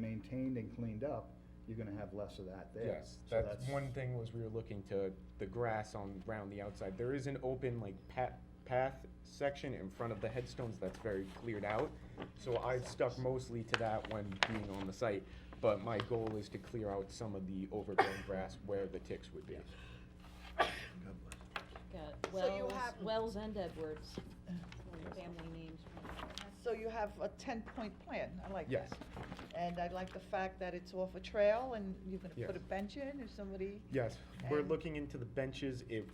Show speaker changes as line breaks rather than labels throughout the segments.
maintained and cleaned up, you're gonna have less of that there.
Yes,
So
that's, one thing was we were looking to the grass on, round the outside, there is an open like path, path section in front of the headstones that's very cleared out. So I've stuck mostly to that when being on the site, but my goal is to clear out some of the overgrown grass where the ticks would be.
Got
So you
Wells,
have-
Wells and Edwards, family names.
So you have a ten-point plan, I like
Yes.
that. And I like the fact that it's off a trail and you're gonna put a
Yes.
bench in if somebody,
Yes, we're
And-
looking into the benches, if,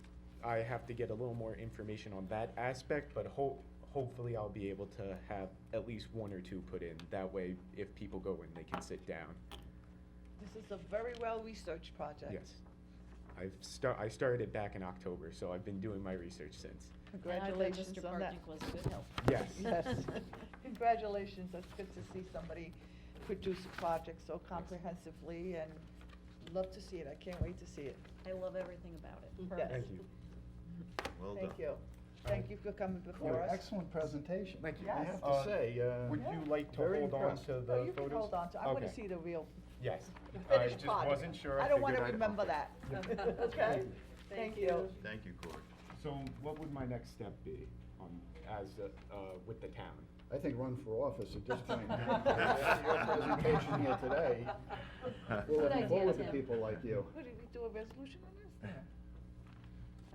I have to get a little more information on that aspect, but ho- hopefully I'll be able to have at least one or two put in, that way if people go in, they can sit down.
this is a very well-researched project.
Yes. I've start, I started it back in October, so I've been doing my research since.
Congratulations on that.
And I bet Mr. Barczyk was a good help.
Yes.
Yes. Congratulations, that's good to see somebody produce a project so comprehensively and love to see it, I can't wait to see it.
I love everything about it.
Yes.
Thank you.
Well done.
Thank you. Thank you for coming before us.
Excellent presentation.
Thank you.
I
Yes.
have
Uh,
to say, uh.
Would you like to
very
hold on
impressed.
to the
No,
photos?
you can hold on to, I wanna
Okay.
see the real,
Yes.
the finished
I
product.
just wasn't sure.
I don't wanna
figured I'd-
remember that, okay? Thank you.
Thank you, Corey.
So what would my next step be on, as, uh, uh, with the town?
I think run for office at this point. Your presentation here today, we're
Good
looking
idea,
forward to
Tim.
people like you.
What, did we do a resolution on this?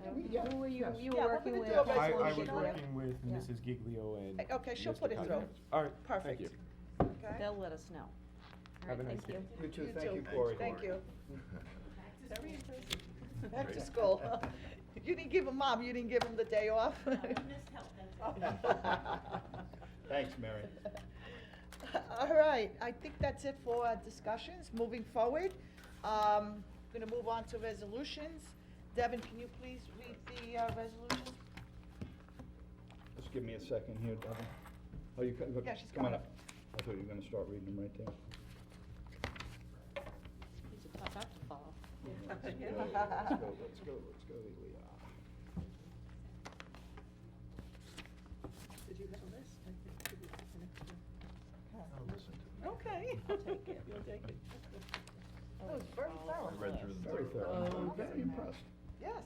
Um,
we- yeah,
Who were you,
yes.
you
Yeah,
were
we're
working
gonna
with?
do a
I, I was
resolution on it.
working with
Yeah.
Mrs. Giglio and.
Uh, okay, she'll
Mr.
put it through.
Kazimierz. All right, thank
Perfect.
you.
Okay?
They'll let us know. All
Have a
right,
nice
thank
day.
you.
You too,
You
thank
too.
you, Corey.
Thank you.
Very impressive.
Back to school. You didn't give him, mom, you didn't give him the day off?
I missed help, that's it.
Thanks, Mary.
All right, I think that's it for our discussions. Moving forward, um, gonna move on to resolutions. Devin, can you please read the, uh, resolution?
Just give me a second here, Devin. Oh, you, co- look,
Yeah, she's
come on
coming
up. I thought you were gonna start reading them right there.
He's a tough act to follow.
Let's go, let's go, let's go, let's go, here we are.
Did you have a list?
I'll listen to it.
Okay. I'll take it, you'll take it. That was very
I
thorough.
read through them.
Very thorough.
Oh,
Very
okay.
impressed.
Yes.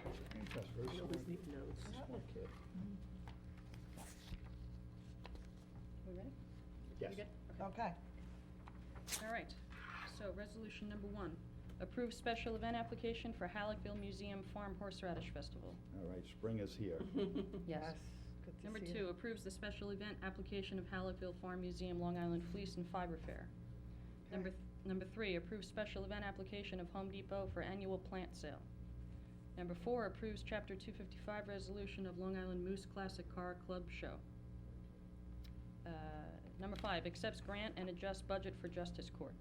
Very impressed, very smart. Smart kid.
We ready?
Yes.
You good? Okay.
Okay.
All right, so resolution number one, approve special event application for Halleckville Museum Farm Horseradish Festival.
All right, spring is here.
Good to
Number
see you.
two, approves the special event application of Halleckville Farm Museum Long Island Fleece and Fiber Fair. Number, th- number three, approves special event application of Home Depot for annual plant sale. Number four, approves chapter two fifty-five resolution of Long Island Moose Classic Car Club Show. Uh, Number five, accepts grant and adjusts budget for justice court.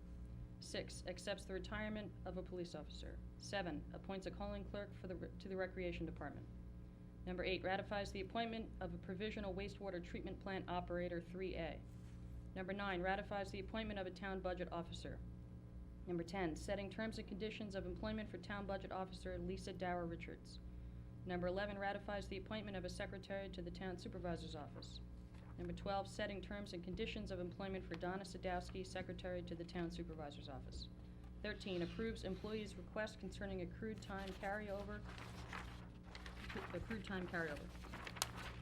Six, accepts the retirement of a police officer. Seven, appoints a calling clerk for the, re- to the recreation department. Number eight, ratifies the appointment of a provisional wastewater treatment plant operator, 3A. Number nine, ratifies the appointment of a town budget officer. Number 10, setting terms and conditions of employment for town budget officer Lisa Dower Richards. Number 11, ratifies the appointment of a secretary to the town supervisor's office. Number 12, setting terms and conditions of employment for Donna Sadowski, secretary to the town supervisor's office. 13, approves employees' request concerning accrued time carryover accrued time carryover.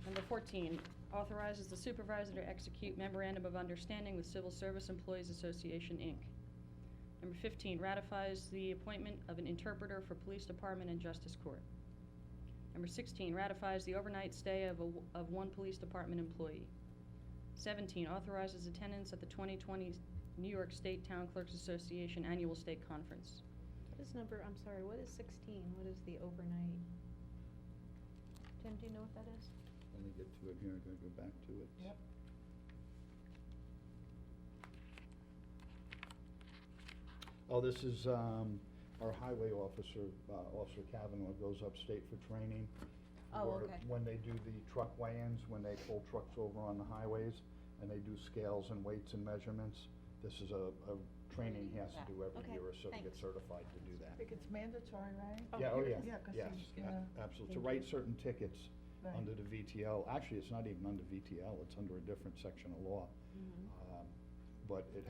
Number 14, authorizes the supervisor to execute memorandum of understanding with Civil Service Employees Association, Inc. Number 15, ratifies the appointment of an interpreter for Police Department and Justice Court. Number 16, ratifies the overnight stay of, a w- of one Police Department employee. 17, authorizes attendance at the 2020 New York State Town Clerks Association Annual State Conference.
What is number, I'm sorry, what is sixteen? What is the overnight? Tim, do you know what that is?
Let me get to it here, I'm gonna go back to it.
Yep.
Oh, this is, um, our highway officer, uh, Officer Kavanaugh goes upstate for training.
Oh,
where-
okay.
When they do the truck weigh-ins, when they pull trucks over on the highways, and they do scales and weights and measurements, this is a, a training he has to do every
Okay,
year or so to get
thanks.
certified to do
I
that.
think it's mandatory, right?
Yeah, oh, yeah,
Yeah, 'cause
yes,
he's
a-
gonna-
absolutely, to
Thank
write certain tickets
Right.
under the VTL, actually, it's not even under VTL, it's under a different section of law. Um, But it